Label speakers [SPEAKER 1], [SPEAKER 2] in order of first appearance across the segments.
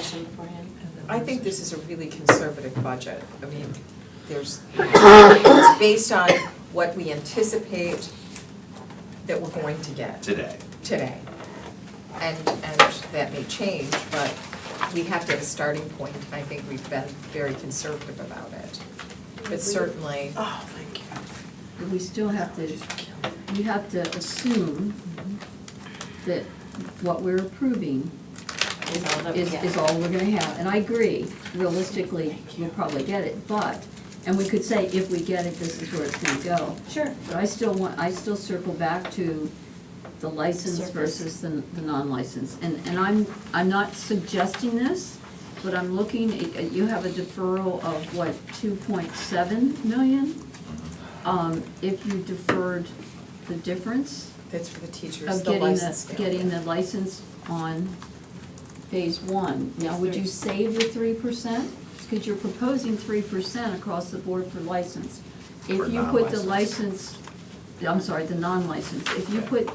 [SPEAKER 1] discussion beforehand?
[SPEAKER 2] I think this is a really conservative budget. I mean, there's, it's based on what we anticipate that we're going to get
[SPEAKER 3] today.
[SPEAKER 2] today. And, and that may change, but we have to have a starting point. and I think we've been very conservative about it. But certainly,
[SPEAKER 1] Oh, thank you.
[SPEAKER 4] we still have to, we have to assume that what we're approving
[SPEAKER 1] Is all that we
[SPEAKER 4] is,
[SPEAKER 1] get.
[SPEAKER 4] is all we're gonna have. And I agree, realistically, we'll probably get it, but, and we could say, if we get it, this is where it's gonna go.
[SPEAKER 1] Sure.
[SPEAKER 4] But I still want, I still circle back to the license
[SPEAKER 1] Service.
[SPEAKER 4] versus the, the non-license. And, and I'm, I'm not suggesting this, but I'm looking, at- at- you have a deferral of what, two point seven million? Um, if you deferred the difference
[SPEAKER 2] that's for the teachers,
[SPEAKER 4] of
[SPEAKER 2] the
[SPEAKER 4] getting
[SPEAKER 2] license.
[SPEAKER 4] the, getting the license on phase one. Now, would you save the three percent? Because you're proposing three percent across the board for license.
[SPEAKER 3] For
[SPEAKER 4] If you put the
[SPEAKER 3] non-license.
[SPEAKER 4] license, I'm sorry, the non-license, if you put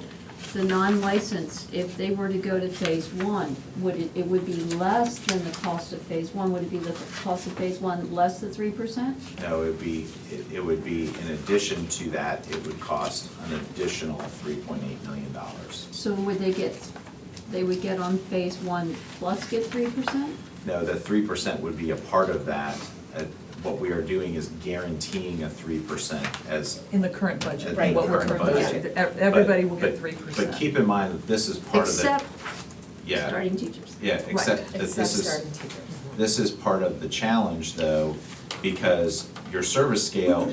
[SPEAKER 4] the non-license, if they were to go to phase one, would it, it would be less than the cost of phase one? Would it be the cost of phase one less than three percent?
[SPEAKER 3] No, it would be, it- it would be, in addition to that, it would cost an additional three point eight million dollars.
[SPEAKER 4] So would they get, they would get on phase one plus get three percent?
[SPEAKER 3] No, the three percent would be a part of that. Uh, What we are doing is guaranteeing a three percent as.
[SPEAKER 5] In the current budget,
[SPEAKER 3] Right.
[SPEAKER 5] what we're
[SPEAKER 3] Current
[SPEAKER 5] currently,
[SPEAKER 3] budget.
[SPEAKER 5] yeah, ev- everybody will get
[SPEAKER 3] But- but-
[SPEAKER 5] three percent.
[SPEAKER 3] But keep in mind that this is part of the.
[SPEAKER 4] Except
[SPEAKER 3] Yeah.
[SPEAKER 4] starting teachers.
[SPEAKER 3] Yeah, except that
[SPEAKER 2] Except
[SPEAKER 3] this is,
[SPEAKER 2] starting teachers.
[SPEAKER 3] this is part of the challenge though, because your service scale,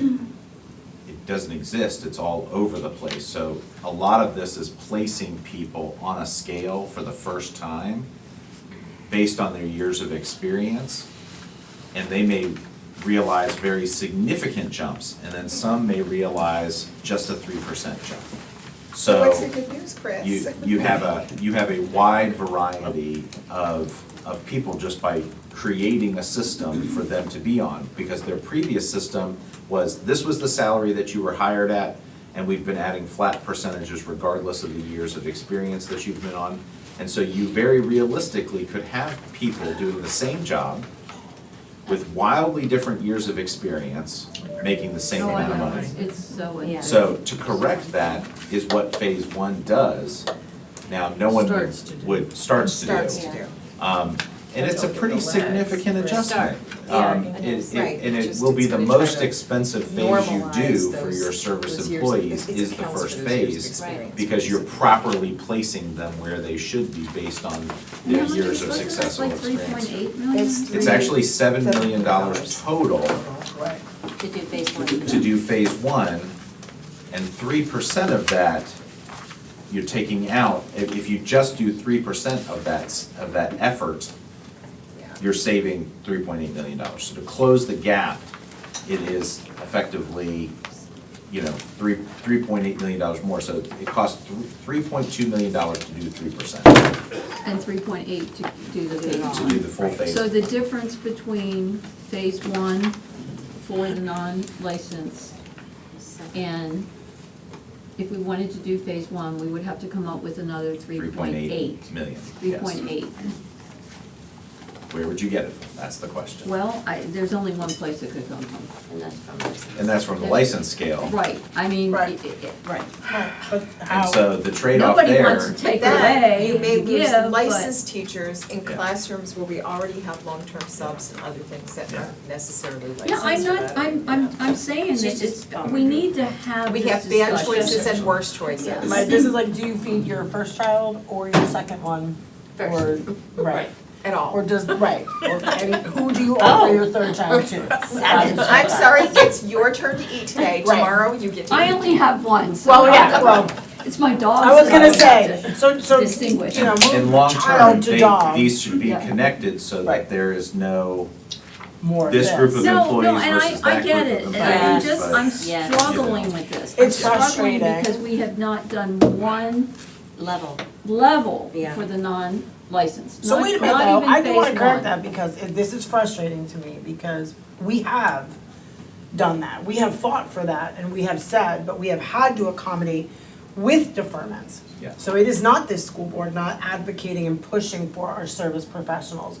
[SPEAKER 3] it doesn't exist, it's all over the place. So a lot of this is placing people on a scale for the first time based on their years of experience. And they may realize very significant jumps, and then some may realize just a three percent jump. So.
[SPEAKER 2] What's the good news, Chris?
[SPEAKER 3] You, you have a, you have a wide variety of, of people just by creating a system for them to be on. Because their previous system was, this was the salary that you were hired at, and we've been adding flat percentages regardless of the years of experience that you've been on. And so you very realistically could have people doing the same job with wildly different years of experience, making the same
[SPEAKER 4] Oh, I
[SPEAKER 3] amount of
[SPEAKER 4] know,
[SPEAKER 3] money.
[SPEAKER 4] it's- It's so.
[SPEAKER 1] Yeah.
[SPEAKER 3] So to correct that is what phase one does. Now, no one
[SPEAKER 5] Starts to
[SPEAKER 3] would,
[SPEAKER 5] do.
[SPEAKER 3] would, starts to do.
[SPEAKER 2] Starts to
[SPEAKER 1] Yeah.
[SPEAKER 2] do.
[SPEAKER 3] Um, and it's a
[SPEAKER 2] Don't
[SPEAKER 3] pretty
[SPEAKER 2] give the legs.
[SPEAKER 3] significant
[SPEAKER 2] We're
[SPEAKER 3] adjustment.
[SPEAKER 1] start. Yeah,
[SPEAKER 3] Um,
[SPEAKER 1] it
[SPEAKER 3] it-
[SPEAKER 1] is.
[SPEAKER 3] it-
[SPEAKER 2] Right,
[SPEAKER 3] and it
[SPEAKER 2] just
[SPEAKER 3] will be
[SPEAKER 2] it's
[SPEAKER 3] the
[SPEAKER 2] gonna try
[SPEAKER 3] most
[SPEAKER 2] to
[SPEAKER 3] expensive phase you do
[SPEAKER 2] Normalize
[SPEAKER 3] for
[SPEAKER 2] those-
[SPEAKER 3] your service
[SPEAKER 2] those years of-
[SPEAKER 3] employees
[SPEAKER 2] it's
[SPEAKER 3] is the
[SPEAKER 2] accounts
[SPEAKER 3] first
[SPEAKER 2] for those years of
[SPEAKER 3] phase.
[SPEAKER 2] experience.
[SPEAKER 3] Because you're properly placing them where they should be based on their years of successful
[SPEAKER 4] Like three
[SPEAKER 3] experience.
[SPEAKER 4] point eight million?
[SPEAKER 2] It's
[SPEAKER 3] It's actually seven million dollars total
[SPEAKER 2] Right.
[SPEAKER 1] To do phase one.
[SPEAKER 3] to do phase one, and three percent of that you're taking out, if, if you just do three percent of that, s- of that effort,
[SPEAKER 2] Yeah.
[SPEAKER 3] you're saving three point eight million dollars. So to close the gap, it is effectively, you know, three, three point eight million dollars more, so it costs three point two million dollars to do three percent, to
[SPEAKER 4] And three point eight to do the phase
[SPEAKER 3] do
[SPEAKER 4] one.
[SPEAKER 3] the full phase.
[SPEAKER 4] So the difference between phase one for the non-licensed and if we wanted to do phase one, we would have to come up with another three point eight.
[SPEAKER 3] 3.8 million,
[SPEAKER 4] Three
[SPEAKER 3] yes.
[SPEAKER 4] point eight.
[SPEAKER 3] Where would you get it from? That's the question.
[SPEAKER 4] Well, I, there's only one place it could come from.
[SPEAKER 1] And that's from the-
[SPEAKER 3] And that's from the license scale.
[SPEAKER 4] Right, I mean,
[SPEAKER 6] Right.
[SPEAKER 4] it, it, it- right.
[SPEAKER 6] But
[SPEAKER 3] And
[SPEAKER 6] how,
[SPEAKER 3] so the trade-off there.
[SPEAKER 4] Nobody wants to take
[SPEAKER 2] Then
[SPEAKER 4] away
[SPEAKER 2] you may
[SPEAKER 4] to
[SPEAKER 2] lose
[SPEAKER 4] give, but-
[SPEAKER 2] licensed teachers in
[SPEAKER 3] Yeah.
[SPEAKER 2] classrooms where we already have long-term subs and other things that aren't necessarily licensed.
[SPEAKER 4] No, I'm
[SPEAKER 2] for
[SPEAKER 4] not,
[SPEAKER 2] that.
[SPEAKER 4] I'm, I'm, I'm saying
[SPEAKER 1] She's
[SPEAKER 4] that it's,
[SPEAKER 1] just
[SPEAKER 4] we need to have
[SPEAKER 2] We
[SPEAKER 4] this
[SPEAKER 2] have bad choices
[SPEAKER 4] discussion.
[SPEAKER 2] and worse choices.
[SPEAKER 4] Yeah.
[SPEAKER 6] my, this is like, do you feed your first child or your second one? Or, right,
[SPEAKER 2] At all.
[SPEAKER 6] or does, right, or, and who do you offer your third child to?
[SPEAKER 2] I'm I'm sorry, it's your turn to eat today,
[SPEAKER 6] Right.
[SPEAKER 2] tomorrow you get to eat.
[SPEAKER 4] I only have one, so.
[SPEAKER 6] Well, yeah, well,
[SPEAKER 4] It's my dog's.
[SPEAKER 6] I was gonna
[SPEAKER 4] dog.
[SPEAKER 6] say, so, so, you
[SPEAKER 4] Distinguish.
[SPEAKER 3] And
[SPEAKER 6] know, move child to
[SPEAKER 3] long-term,
[SPEAKER 6] dog,
[SPEAKER 3] they, these should be
[SPEAKER 4] Yeah.
[SPEAKER 3] connected so that
[SPEAKER 6] Right.
[SPEAKER 3] there is no,
[SPEAKER 6] more
[SPEAKER 3] this
[SPEAKER 6] this.
[SPEAKER 3] group of
[SPEAKER 4] No, no,
[SPEAKER 3] employees
[SPEAKER 4] and I,
[SPEAKER 3] versus
[SPEAKER 4] I
[SPEAKER 3] that group
[SPEAKER 4] get
[SPEAKER 3] of
[SPEAKER 4] it, and I'm
[SPEAKER 3] employees,
[SPEAKER 4] just,
[SPEAKER 3] but-
[SPEAKER 4] I'm
[SPEAKER 1] Yes.
[SPEAKER 4] struggling with this.
[SPEAKER 6] It's
[SPEAKER 4] I'm struggling
[SPEAKER 6] frustrating.
[SPEAKER 4] Because we have not done one
[SPEAKER 1] Level.
[SPEAKER 4] level
[SPEAKER 1] Yeah.
[SPEAKER 4] for the non-licensed,
[SPEAKER 6] So
[SPEAKER 4] not,
[SPEAKER 6] wait a minute
[SPEAKER 4] not
[SPEAKER 6] though,
[SPEAKER 4] even
[SPEAKER 6] I do wanna
[SPEAKER 4] phase
[SPEAKER 6] correct
[SPEAKER 4] one.
[SPEAKER 6] that because it- this is frustrating to me because we have done that. We have fought for that and we have said, but we have had to accommodate with deferments.
[SPEAKER 3] Yeah.
[SPEAKER 6] So it is not this school board not advocating and pushing for our service professionals.